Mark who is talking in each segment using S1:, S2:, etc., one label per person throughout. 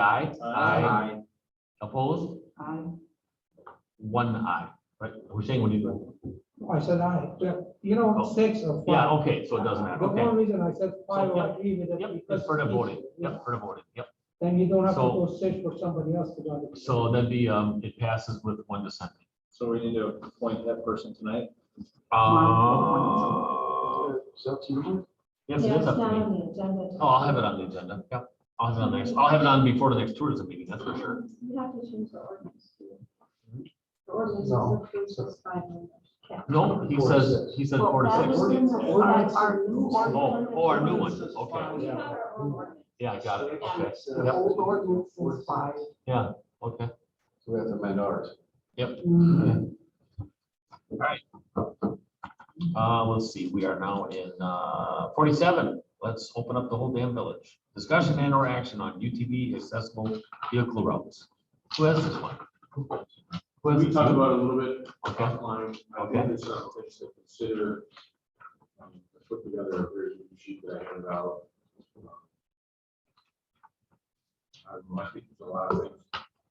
S1: Aye.
S2: Aye.
S1: Opposed?
S3: Aye.
S2: Um,
S1: One aye, right? We're saying when you,
S2: I said aye, yeah, you
S1: Oh.
S2: know, six or
S1: yeah,
S2: five.
S1: okay, so it doesn't matter,
S2: The
S1: okay.
S2: only reason I said five,
S1: yeah.
S2: I agree with it.
S1: Yep,
S2: because
S1: it's for the
S2: it's-
S1: voting,
S2: yeah,
S1: yep, for the voting, yep.
S2: Then you don't have to
S1: So-
S2: go six for somebody else to do it.
S1: So that'd be, um, it passes with one dissenting.
S4: So we need to appoint that person tonight.
S1: Uh, yes, it
S3: Yeah,
S1: is
S3: it's
S1: up
S3: not
S1: to me.
S3: on the agenda.
S1: Oh, I'll have it on the agenda, yep. I'll have it on next, I'll have it on before the next tourism meeting, that's for sure.
S3: You have to change the ordinance. too. The
S2: No.
S3: ordinance is approved as five minutes. Yeah.
S1: No, he says, he said four
S3: Well, that
S1: to
S3: was
S1: six.
S3: in the- that's Our new
S1: Oh,
S3: ordinance.
S1: oh, our new one,
S4: Ordinance is
S1: okay.
S4: fine.
S3: We have our own ordinance.
S1: Yeah, I got it, okay,
S5: The old ordinance was five.
S1: okay.
S5: We have to amend ours.
S2: Mm.
S1: Uh, let's see, we are now in, uh, forty-seven. Let's open up the whole damn village. Discussion and or action on UTV accessible vehicle routes. Who has this one? Who has
S4: We
S1: this
S4: talked
S1: one?
S4: about it a little bit
S1: Okay,
S4: offline. I
S1: Okay.
S4: think there's some things to consider. Um, I Put together a very good sheet that I handed out. I don't know, I think there's a lot of things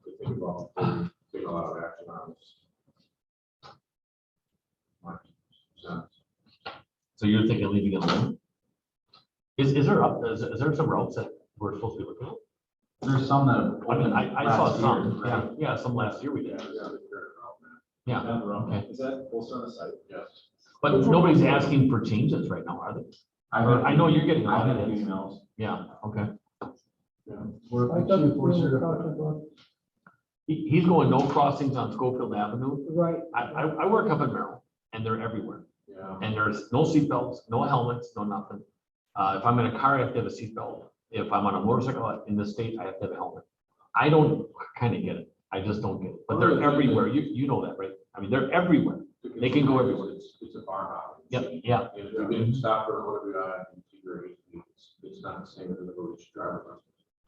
S4: to think about, to take a lot of action on this. My sense.
S1: so you're thinking leaving it alone? Is, is there, up- is, is there some routes that we're supposed to be looking at?
S5: There's some that.
S1: I mean, I, I saw
S5: last
S1: some,
S5: year,
S1: yeah,
S5: right?
S1: yeah, some last year we
S4: Yeah,
S1: did,
S4: we gotta figure it out, man.
S1: yeah. Okay.
S4: Is that posted on the site? Yes.
S1: But nobody's asking for changes right now, are they?
S5: I
S1: Or
S5: heard,
S1: I know you're getting
S5: I had
S1: audited.
S5: emails.
S1: Yeah, okay.
S5: We're,
S2: I thought we were talking
S5: we're,
S2: about,
S1: He, he's going no crossings on Schofield Avenue.
S2: right,
S1: I, I, I work up in Merrill and they're everywhere.
S4: Yeah.
S1: And there's no seatbelts, no helmets, no nothing. Uh, if I'm in a car, I have to have a seatbelt. If I'm on a motorcycle in the state, I have to have a helmet. I don't kind of get it. I just don't get it, but they're everywhere. You, you know that, right? I mean, they're everywhere. They can go everywhere.
S4: It's, it's a farmhouse.
S1: Yep, yeah,
S4: And If we didn't stop for what we got, it's great. It's- It's not the same as the village driver.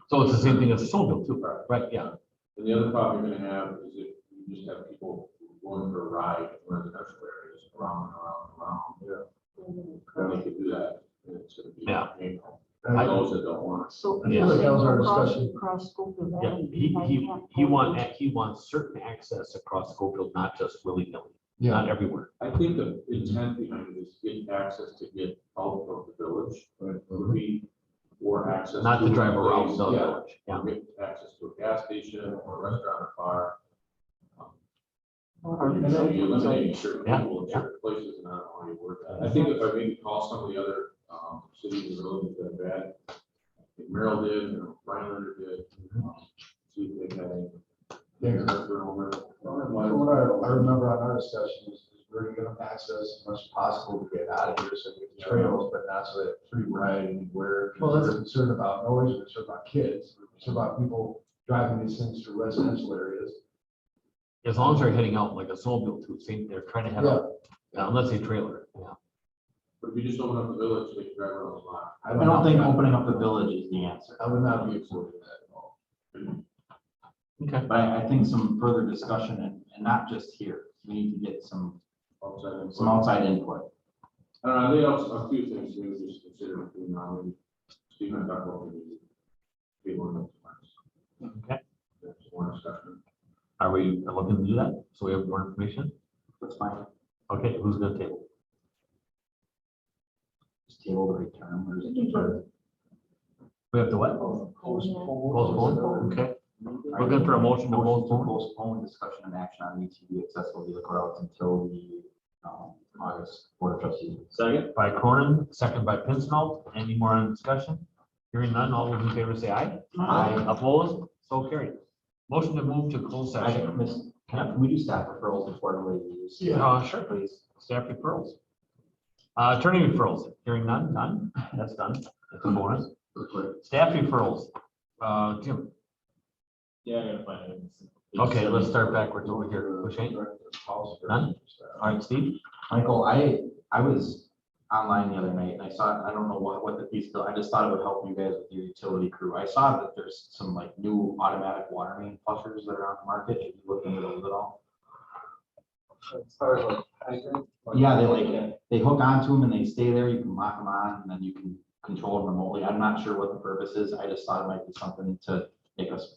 S1: so it's the same thing as a snowmobile too,
S4: Right.
S1: right? Yeah,
S4: And the other problem you're gonna have is if you just have people going for a ride in residential areas, around and around and around. Yeah. They could do that. and it's gonna be
S1: Yeah.
S4: painful.
S1: I-
S4: For those that don't want.
S6: So.
S1: Yeah.
S5: That was our discussion.
S6: Cross Schofield
S1: yeah.
S6: Avenue.
S1: He, he, he want, he wants certain access across Schofield, not just willy-nilly,
S5: yeah,
S1: not everywhere.
S4: I think the intent behind it is get access to get out of the village. Would be for access.
S1: Not to drive around the
S4: Yeah.
S1: village, yeah.
S4: or get access to a gas station or a restaurant or bar. Um,
S5: Uh, And
S4: You know,
S5: then-
S4: you eliminate certain
S1: Yeah,
S4: people in
S1: yeah.
S4: certain places and I don't want to work that. I think if I maybe call some of the other um, cities and villages that have had, I think Merrill did, and Rhinelander did. um, See if they had.
S5: Yeah. From
S4: Yeah.
S5: what I, I remember on our discussions, is we're gonna access as much as possible to get out of here, so we can trails, but not so that free ride anywhere.
S2: Well, that's-
S5: We're concerned about noise, we're concerned about kids, we're concerned about people driving these things through residential areas.
S1: As long as they're heading out like a snowmobile too, same, they're trying to head out, Yeah, unless they trailer, yeah.
S4: But if you just open up the village, they can drive around a lot.
S5: I don't think opening up the village is the answer. I would not be supporting that at all.
S1: Okay.
S7: But I, I think some further discussion and, and not just here, we need to get some,
S4: outside of-
S7: some outside input.
S4: I don't know, they also, a few things we would just consider between now and Steve and I talk about. maybe Be one of those.
S1: Okay.
S4: That's one discussion.
S1: Are we looking to do that? So we have more information?
S7: That's fine,
S1: Okay, who's gonna table?
S7: just table the return, or is it- or-
S1: We have the what? Postpone, okay. Looking for a motion to
S7: Motion to
S1: postpone.
S7: postpone discussion and action on E UTV accessible vehicle routes until the, um, August board of trustees.
S4: Second?
S1: By Cronin, second by Pincinel. Any more on discussion? Hearing none, all those in favor say aye.
S7: Aye.
S1: Opposed? So carried. Motion to move to closed
S7: I
S1: session.
S7: miss, can I- can we do staff referrals before everybody leaves?
S1: Uh, sure, please. Staff referrals. Uh, Attorney referrals, hearing none, none. That's done. That's a bonus. Staff referrals, uh, Jim.
S4: Yeah, I gotta find it.
S1: Okay, let's start backwards over here. Hushain? None? All right, Steve?
S7: Michael, I, I was online the other night and I saw, I don't know what, what the piece, I just thought it would help you guys with your utility crew. I saw that there's some like new automatic water main flushers that are on the market. Have you looked into those at all? Yeah, they like, they hook onto them and they stay there. You can lock them on and then you can control them remotely. I'm not sure what the purpose is. I just thought it might be something to take us